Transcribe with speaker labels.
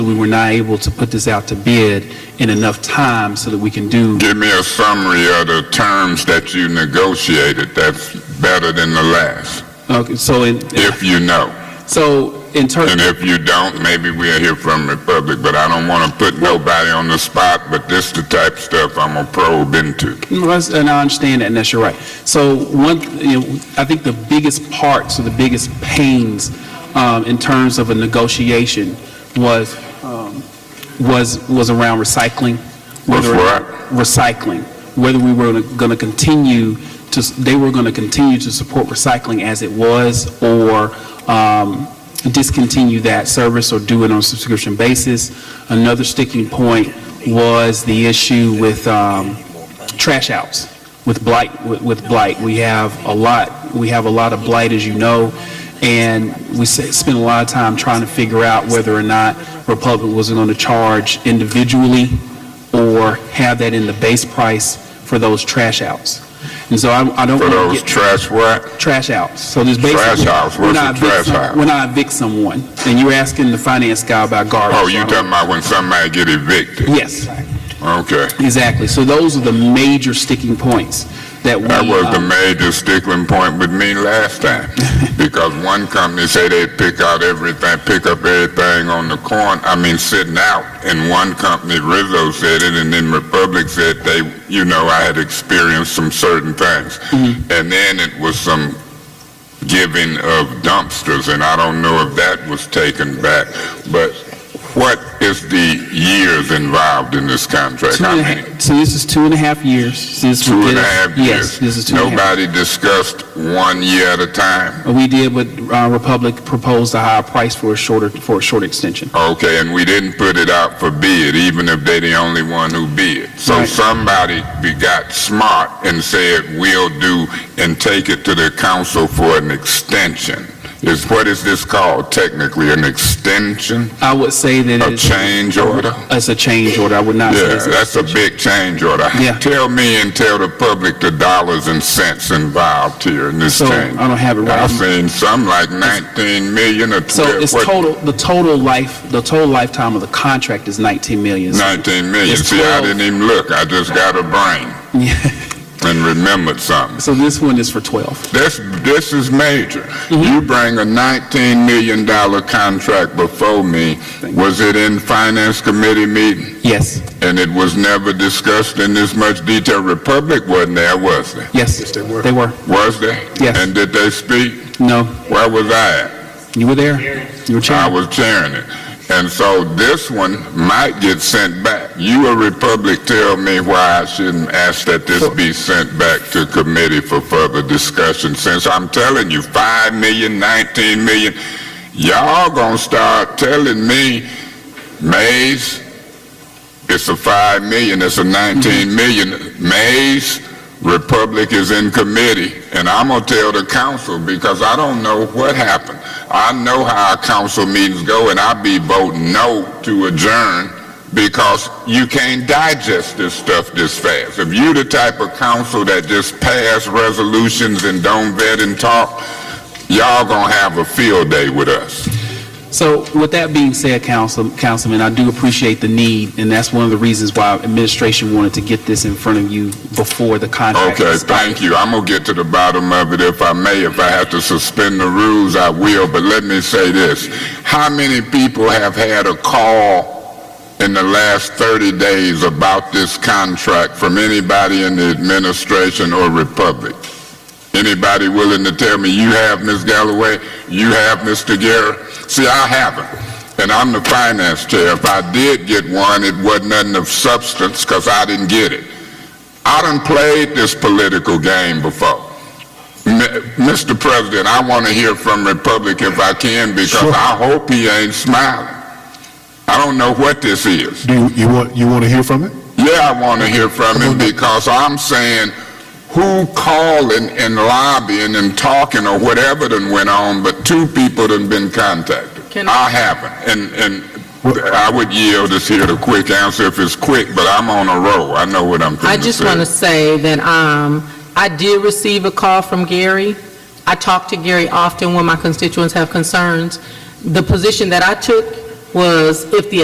Speaker 1: we were not able to put this out to bid in enough time so that we can do
Speaker 2: Give me a summary of the terms that you negotiated that's better than the last,
Speaker 1: Okay, so in,
Speaker 2: if you know.
Speaker 1: so in terms,
Speaker 2: And if you don't, maybe we'll hear from the public, but I don't want to put nobody on the spot, but this the type of stuff I'm going to probe into.
Speaker 1: and I understand that, and that's you're right. So one, you know, I think the biggest parts or the biggest pains um, in terms of a negotiation was, um, was, was around recycling.
Speaker 2: Was
Speaker 1: whether-
Speaker 2: what?
Speaker 1: Recycling, whether we were going to continue to, they were going to continue to support recycling as it was or um, discontinue that service or do it on a subscription basis. Another sticking point was the issue with um, trash outs, with blight, with- with blight. We have a lot, we have a lot of blight, as you know, and we s- spent a lot of time trying to figure out whether or not Republic was going to charge individually or have that in the base price for those trash outs. And so I I don't
Speaker 2: For
Speaker 1: want to
Speaker 2: those
Speaker 1: get
Speaker 2: trash what?
Speaker 1: trash out. So there's basically.
Speaker 2: Trash outs. What's
Speaker 1: we're
Speaker 2: a
Speaker 1: not
Speaker 2: trash
Speaker 1: evict some-
Speaker 2: out?
Speaker 1: We're not evict someone. And you're asking the finance guy about garbage.
Speaker 2: Oh, you talking about when somebody get evicted?
Speaker 1: Yes,
Speaker 2: Okay.
Speaker 1: exactly. So those are the major sticking points that we.
Speaker 2: That was
Speaker 1: um,
Speaker 2: the major stickling point with me last time, because one company say they pick out everything, pick up everything on the corn, I mean, sitting out, and one company, Rizzo said it, and then Republic said they, you know, I had experienced some certain things.
Speaker 1: Mm-hmm.
Speaker 2: And then it was some giving of dumpsters, and I don't know if that was taken back, but what is the years involved in this contract?
Speaker 1: two
Speaker 2: I
Speaker 1: and a
Speaker 2: mean-
Speaker 1: half- So this is two and a half years since. we
Speaker 2: Two and
Speaker 1: did
Speaker 2: a
Speaker 1: it.
Speaker 2: half
Speaker 1: Yes,
Speaker 2: years.
Speaker 1: this is two and a half.
Speaker 2: Nobody discussed one year at a time.
Speaker 1: We did what uh, Republic proposed, a higher price for a shorter, for a short extension.
Speaker 2: Okay, and we didn't put it out for bid, even if they the only one who bid. So
Speaker 1: Right.
Speaker 2: somebody be- got smart and said, we'll do, and take it to the council for an extension. Is, what is this called technically, an extension?
Speaker 1: I would say that
Speaker 2: A
Speaker 1: it's.
Speaker 2: change order?
Speaker 1: It's a change order. I would not say.
Speaker 2: Yeah,
Speaker 1: it's-
Speaker 2: that's a big change order.
Speaker 1: Yeah.
Speaker 2: Tell me and tell the public the dollars and cents involved here in this
Speaker 1: So
Speaker 2: change.
Speaker 1: I don't have it right.
Speaker 2: I've seen some like 19 million or
Speaker 1: So
Speaker 2: 12,
Speaker 1: it's
Speaker 2: what,
Speaker 1: total, the total life, the total lifetime of the contract is 19 million.
Speaker 2: 19 million.
Speaker 1: it's
Speaker 2: See, I
Speaker 1: 12.
Speaker 2: didn't even look. I just got a brain and remembered something.
Speaker 1: So this one is for 12.
Speaker 2: This, this is major.
Speaker 1: Mm-hmm.
Speaker 2: You bring a 19 million dollar contract before me. Was it in finance committee meeting?
Speaker 1: Yes,
Speaker 2: And it was never discussed in this much detail. Republic wasn't there, was there?
Speaker 1: yes. they were. They were.
Speaker 2: Was there?
Speaker 1: Yes.
Speaker 2: And did they speak?
Speaker 1: No,
Speaker 2: Where was I at?
Speaker 1: you were there. You were
Speaker 2: I
Speaker 1: chairman.
Speaker 2: was chairing it. And so this one might get sent back. You a Republic, tell me why I shouldn't ask that this be sent back to committee for further discussion, since I'm telling you, five million, nineteen million, y'all gonna start telling me, Mays, it's a five million, it's a nineteen million, Mays, Republic is in committee, and I'm gonna tell the council because I don't know what happened. I know how our council meetings go, and I be voting no to adjourn because you can't digest this stuff this fast. If you the type of council that just pass resolutions and don't vet and talk, y'all gonna have a field day with us.
Speaker 1: So with that being said, Council- Councilman, I do appreciate the need, and that's one of the reasons why administration wanted to get this in front of you before the contract.
Speaker 2: Okay,
Speaker 1: expired.
Speaker 2: thank you. I'm gonna get to the bottom of it if I may. If I have to suspend the rules, I will, but let me say this. How many people have had a call in the last 30 days about this contract from anybody in the administration or Republic? Anybody willing to tell me you have, Ms. Galloway? You have, Mr. Guerra? See, I haven't. And I'm the finance chair. If I did get one, it wasn't nothing of substance because I didn't get it. I done played this political game before. M- Mr. President, I want to hear from Republic if I can because I hope he ain't smiling. I don't know what this is.
Speaker 3: Do you, you want, you want to hear from it?
Speaker 2: Yeah, I want to hear from him because I'm saying who calling and lobbying and talking or whatever done went on, but two people done been contacted.
Speaker 4: Can-
Speaker 2: I haven't, and, and I would yield this here the quick answer if it's quick, but I'm on a roll. I know what I'm
Speaker 4: I
Speaker 2: going to
Speaker 4: just
Speaker 2: say.
Speaker 4: want to say that um, I did receive a call from Gary. I talk to Gary often when my constituents have concerns. The position that I took was if the